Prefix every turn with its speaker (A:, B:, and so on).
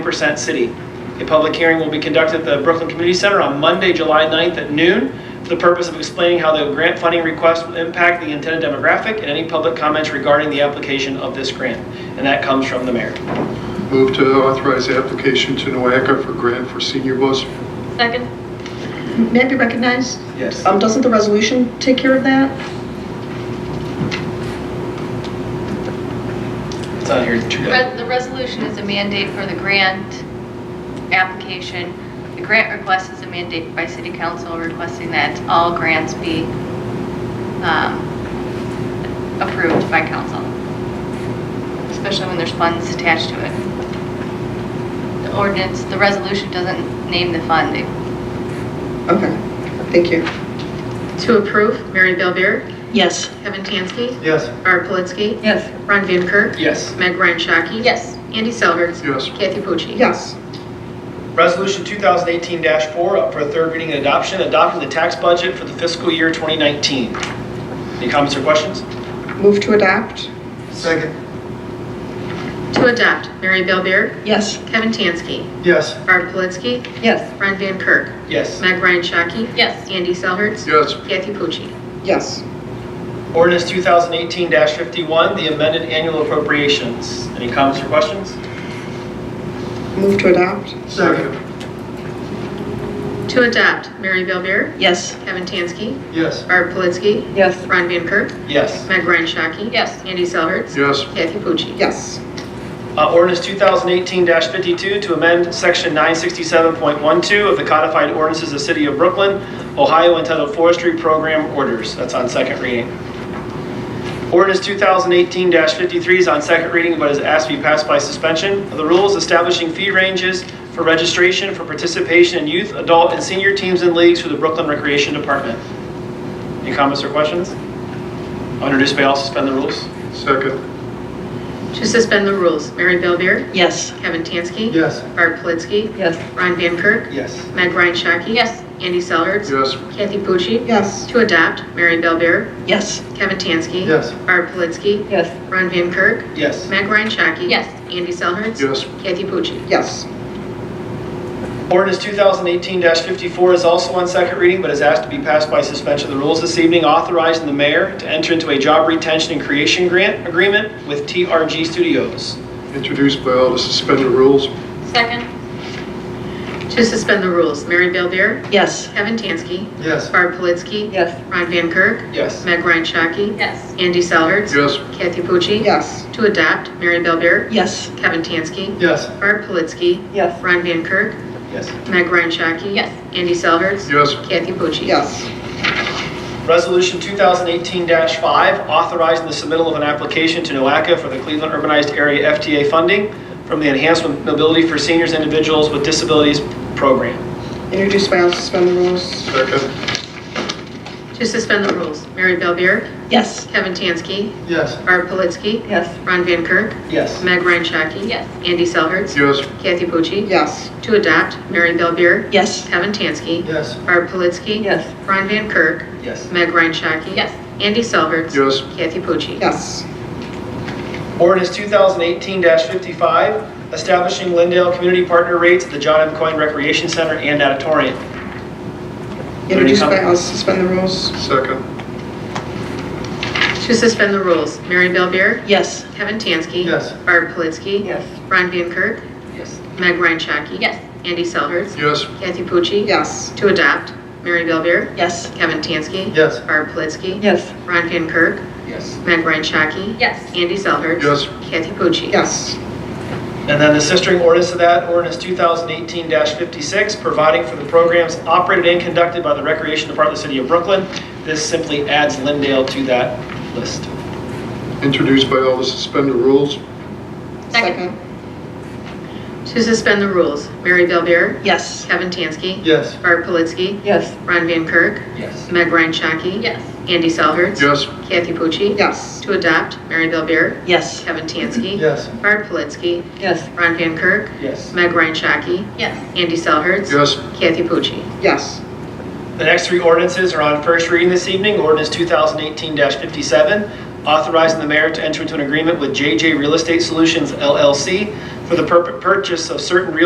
A: percent city. A public hearing will be conducted at the Brooklyn Community Center on Monday, July 9th at noon for the purpose of explaining how the grant funding request will impact the intended demographic and any public comments regarding the application of this grant. And that comes from the mayor.
B: Move to authorize the application to NOACA for grant for senior bus.
C: Second.
D: May I be recognized?
A: Yes.
D: Um, doesn't the resolution take care of that?
A: It's on here.
C: The re- the resolution is a mandate for the grant application. The grant request is a mandate by city council requesting that all grants be um, approved by council, especially when there's funds attached to it. The ordinance, the resolution doesn't name the fund. It-
D: Okay, thank you.
E: To approve, Mary Bellbeer,
D: Yes.
E: Kevin Tansky,
A: Yes.
E: Barb Politzky,
D: Yes.
E: Ron Van Kirk,
A: Yes.
E: Meg Ryan Shaki.
C: Yes.
E: Andy Selhertz.
B: Yes.
E: Kathy Pucci.
D: Yes.
A: Resolution 2018-4, up for a third reading and adoption, adopting the tax budget for the fiscal year 2019. Any comments or questions?
D: Move to adopt?
B: Second.
E: To adopt, Mary Bellbeer,
D: Yes.
E: Kevin Tansky,
B: Yes.
E: Barb Politzky,
D: Yes.
E: Ron Van Kirk,
A: Yes.
E: Meg Ryan Shaki.
C: Yes.
E: Andy Selhertz.
B: Yes.
E: Kathy Pucci.
D: Yes.
A: Ordinance 2018-51, the amended annual appropriations. Any comments or questions?
D: Move to adopt?
B: Second.
E: To adopt, Mary Bellbeer,
D: Yes.
E: Kevin Tansky,
B: Yes.
E: Barb Politzky,
D: Yes.
E: Ron Van Kirk,
A: Yes.
E: Meg Ryan Shaki.
C: Yes.
E: Andy Selhertz.
B: Yes.
E: Kathy Pucci.
D: Yes.
A: Uh, Ordinance 2018-52 to amend Section 967.12 of the codified ordinances of the City of Brooklyn, Ohio entitled Forestry Program Orders. That's on second reading. Ordinance 2018-53 is on second reading but is asked to be passed by suspension of the rules establishing fee ranges for registration for participation in youth, adult, and senior teams and leagues through the Brooklyn Recreation Department. Any comments or questions? I'll introduce by all, suspend the rules.
B: Second.
E: To suspend the rules, Mary Bellbeer,
D: Yes.
E: Kevin Tansky,
B: Yes.
E: Barb Politzky,
D: Yes.
E: Ron Van Kirk,
A: Yes.
E: Meg Ryan Shaki.
C: Yes.
E: Andy Selhertz.
B: Yes.
E: Kathy Pucci.
D: Yes.
E: To adopt, Mary Bellbeer,
D: Yes.
E: Kevin Tansky.
B: Yes.
E: Barb Politzky,
D: Yes.
E: Ron Van Kirk,
A: Yes.
E: Meg Ryan Shaki.
C: Yes.
E: Andy Selhertz.
B: Yes.
E: Kathy Pucci.
D: Yes.
A: Ordinance 2018-54 is also on second reading, but is asked to be passed by suspension of the rules this evening, authorizing the mayor to enter into a job retention and creation grant agreement with TRG Studios.
B: Introduced by all to suspend the rules.
C: Second.
E: To suspend the rules, Mary Bellbeer,
D: Yes.
E: Kevin Tansky,
B: Yes.
E: Barb Politzky,
D: Yes.
E: Ron Van Kirk,
A: Yes.
E: Meg Ryan Shaki.
C: Yes.
E: Andy Selhertz.
B: Yes.
E: Kathy Pucci.
D: Yes.
E: To adopt, Mary Bellbeer,
D: Yes.
E: Kevin Tansky,
B: Yes.
E: Barb Politzky,
D: Yes.
E: Ron Van Kirk,
A: Yes.
E: Meg Ryan Shaki.
C: Yes.
E: Andy Selhertz.
B: Yes.
E: Kathy Pucci.
D: Yes.
A: Resolution 2018-5, authorizing the submittal of an application to NOACA for the Cleveland Urbanized Area FTA funding from the Enhancement Mobility for Seniors and Individuals with Disabilities Program.
D: Introduced by all, suspend the rules?
B: Second.
E: To suspend the rules, Mary Bellbeer,
D: Yes.
E: Kevin Tansky,
B: Yes.
E: Barb Politzky,
D: Yes.
E: Ron Van Kirk,
A: Yes.
E: Meg Ryan Shaki.
C: Yes.
E: Andy Selhertz.
B: Yes.
E: Kathy Pucci.
D: Yes.
E: To adopt, Mary Bellbeer,
D: Yes.
E: Kevin Tansky,
B: Yes.
E: Barb Politzky.
D: Yes.
E: Ron Van Kirk,
A: Yes.
E: Meg Ryan Shaki.
C: Yes.
E: Andy Selhertz.
B: Yes.
E: Kathy Pucci.
D: Yes.
A: Ordinance 2018-55, establishing Lindale Community Partner rates at the John M. Coyne Recreation Center and Auditorium.
D: Introduced by all, suspend the rules?
B: Second.
E: To suspend the rules, Mary Bellbeer,
D: Yes.
E: Kevin Tansky.
B: Yes.
E: Barb Politzky.
D: Yes.
E: Ron Van Kirk,
A: Yes.
E: Meg Ryan Shaki.
C: Yes.
E: Andy Selhertz.
B: Yes.
E: Kathy Pucci.
D: Yes.
E: To adopt, Mary Bellbeer,
D: Yes.
E: Kevin Tansky.
B: Yes.
E: Barb Politzky.
D: Yes.
E: Ron Van Kirk,
A: Yes.
E: Meg Ryan Shaki.
C: Yes.
E: Andy Selhertz.
B: Yes.
E: Kathy Pucci.
D: Yes.
A: And then the sistering ordinance to that, ordinance 2018-56, providing for the programs operated and conducted by the Recreation Department of the City of Brooklyn. This simply adds Lindale to that list.
B: Introduced by all to suspend the rules.
C: Second.
E: To suspend the rules, Mary Bellbeer,
D: Yes.
E: Kevin Tansky.
B: Yes.
E: Barb Politzky.
D: Yes.
E: Ron Van Kirk,
A: Yes.
E: Meg Ryan Shaki.
C: Yes.
E: Andy Selhertz.
B: Yes.
E: Kathy Pucci.
D: Yes.
E: To adopt, Mary Bellbeer,
D: Yes.
E: Kevin Tansky.
B: Yes.
E: Barb Politzky.
D: Yes.
E: Ron Van Kirk,
A: Yes.
E: Meg Ryan Shaki.
C: Yes.
E: Andy Selhertz.
B: Yes.
E: Kathy Pucci.
D: Yes.
A: The next three ordinances are on first reading this evening. Ordinance 2018-57, authorizing the mayor to enter into an agreement with JJ Real Estate Solutions LLC for for the purp- purchase of certain real